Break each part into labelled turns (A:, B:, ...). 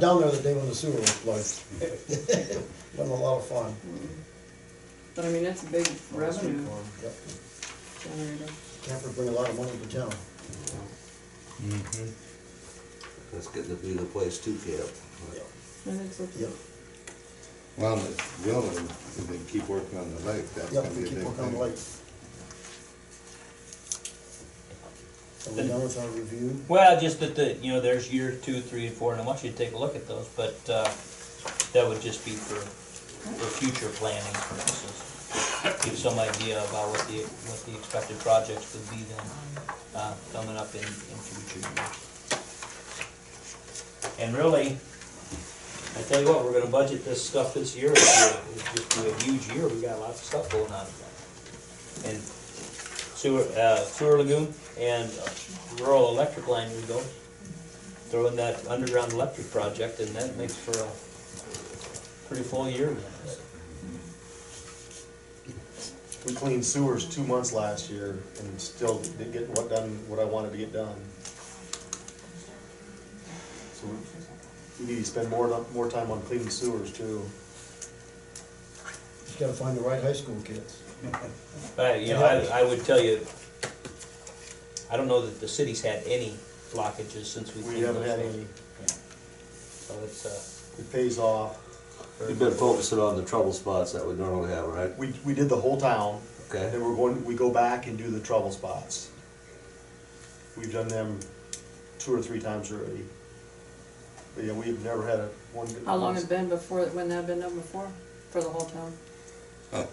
A: down there the day when the sewer was flooded. Been a lot of fun.
B: But I mean, that's a big revenue
A: Yep.
B: generator.
A: Campers bring a lot of money to town.
C: That's getting to be the place to camp.
B: I think so.
A: Yep,
D: Well, it's willing, if they keep working on the lake, that's
A: yep,
D: gonna be
A: we
D: a
A: keep
D: big
A: working on the
D: thing.
A: lake. Are we done with our review?
E: Well, just that the, you know, there's year two, three, and four, and I want you to take a look at those, but, uh, that would just be for, for future planning purposes. Give some idea about what the, what the expected projects would be then, uh, coming up in, in future years. And really, I tell you what, we're gonna budget this stuff this year, it's gonna- it's just be a huge year, we got lots of stuff going on. And sewer, uh, sewer lagoon and rural electric line we go. Throw in that underground electric project and that makes for a pretty full year.
F: We cleaned sewers two months last year and still didn't get what done, what I wanted to get done. So we- we need to spend more, more time on cleaning sewers too.
A: Just gotta find the right high school kids.
E: But, you know, I, I would tell you, I don't know that the city's had any blockages since we.
F: We
E: cleaned
F: haven't
E: those
F: had
E: things.
F: any,
E: So it's,
F: it pays off.
E: uh.
C: You've been focusing on the trouble spots that we normally have, right?
F: We, we did the whole town.
C: Okay.
F: Then we're going, we go back and do the trouble spots. We've done them two or three times already. But yeah, we've never had a one.
B: How long had it been before, when that had been done before, for the whole town?
F: Uh,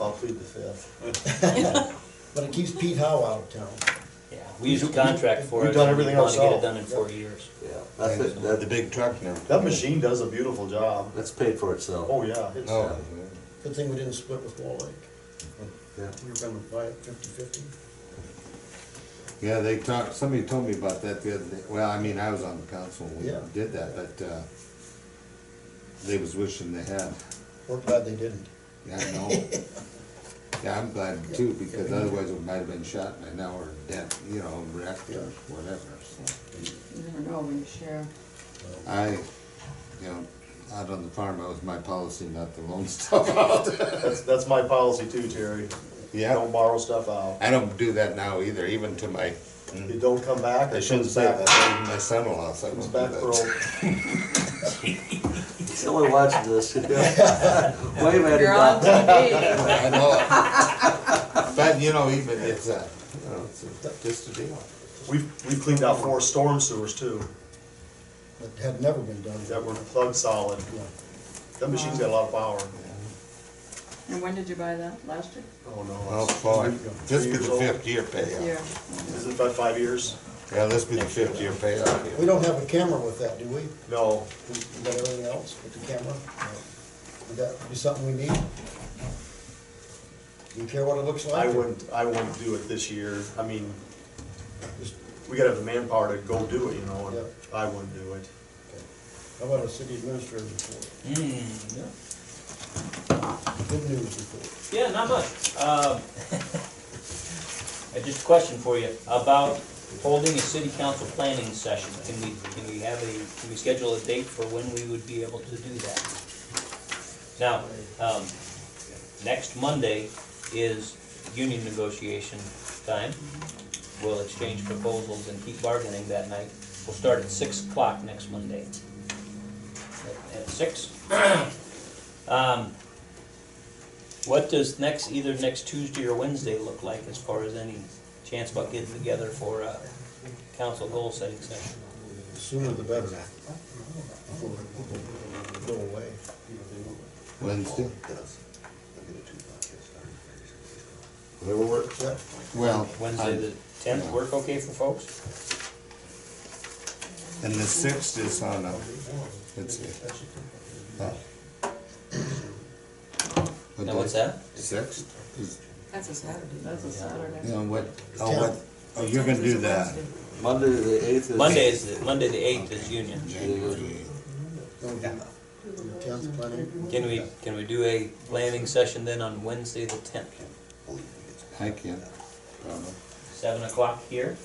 F: I'll plead the fifth.
A: But it keeps Pete Howe out of town.
E: Yeah, we used a contract for it.
F: We've done
E: and we
F: everything
E: wanted to get it
F: ourselves.
E: Done in four years.
C: Yeah, that's, it.
D: And The
C: that,
D: big truck now.
F: That machine does a beautiful job.
C: that's paid for itself.
F: Oh, yeah. it's-
D: Oh,
A: Good thing we didn't split with Wall Lake.
C: Yeah.
A: We were gonna buy it fifty-fifty.
D: yeah, they talked, somebody told me about that the other day, well, I mean, I was on the council when
A: Yeah.
D: we did that, but, uh, they was wishing they had,
A: We're glad they didn't.
D: yeah, I know. Yeah, I'm glad too, because otherwise it might have been shot by now or dead, you know, wrecked or whatever, so.
B: You never know when you share.
D: I, you know, out on the farm, that was my policy not to loan stuff out.
F: That's, that's my policy too, Terry.
D: Yeah,
F: Don't borrow stuff out.
D: I don't do that now either, even to my,
F: It don't come back,
D: I
F: it
D: shouldn't
F: comes
D: say
F: back,
D: that, even my son-in-law, so I
F: comes back
D: won't
F: for
D: do that.
F: old.
C: He's only watching this. Wave at him,
B: You're on
C: Doc.
B: TV.
D: I know. But, you know, even, it's a, you know, it's a- just a deal.
F: We've, we've cleaned out four storm sewers too,
A: It had never been done.
F: that were plug solid.
A: Yeah.
F: That machine's got a lot of power.
B: And when did you buy that, last year?
F: Oh,
D: Well,
F: no.
D: boy, this
F: Three
D: be
F: years
D: the
F: old.
D: fifth year
B: This
D: payoff.
B: year.
F: Is it about five years?
D: Yeah, this be the fifth year payoff.
A: We
D: here.
A: don't have a camera with that, do we?
F: No.
A: We we got everything else with the camera? Would that be something we need? Do you care what it looks like?
F: I wouldn't, I wouldn't do it this year. I mean,
A: Just-
F: we gotta have the manpower to go do it, you know, and
A: Yeah.
F: I wouldn't do it.
A: How about a city administrator report?
E: Hmm, yeah.
A: Good news report.
E: Yeah, not much. Um, I just a question for you about holding a city council planning session. Can we, can we have a, can we schedule a date for when we would be able to do that? Now, um, next Monday is union negotiation time. We'll exchange proposals and keep bargaining that night. We'll start at six o'clock next Monday. At- At six. Um, what does next, either next Tuesday or Wednesday look like as far as any chance about getting together for a council goal setting session?
A: The sooner the better. Before people Go away.
D: Wednesday?
C: Whatever works.
A: Yeah,
D: Well,
E: Wednesday, the
D: I'm-
E: tenth, work okay for folks?
D: and the sixth is on a, let's see. Oh. What
E: Now, what's
D: day?
E: that?
D: Sixth is,
G: That's a Saturday.
B: That's a
D: you
B: Saturday.
D: know, what, oh, what, oh, you're gonna do that.
C: Monday the eighth is.
E: Monday is, the- Monday the eighth is union.
D: January.
A: no, the- the tenth planning.
E: Can we, can we do a planning session then on Wednesday the tenth?
D: I can't, probably.
E: Seven o'clock here?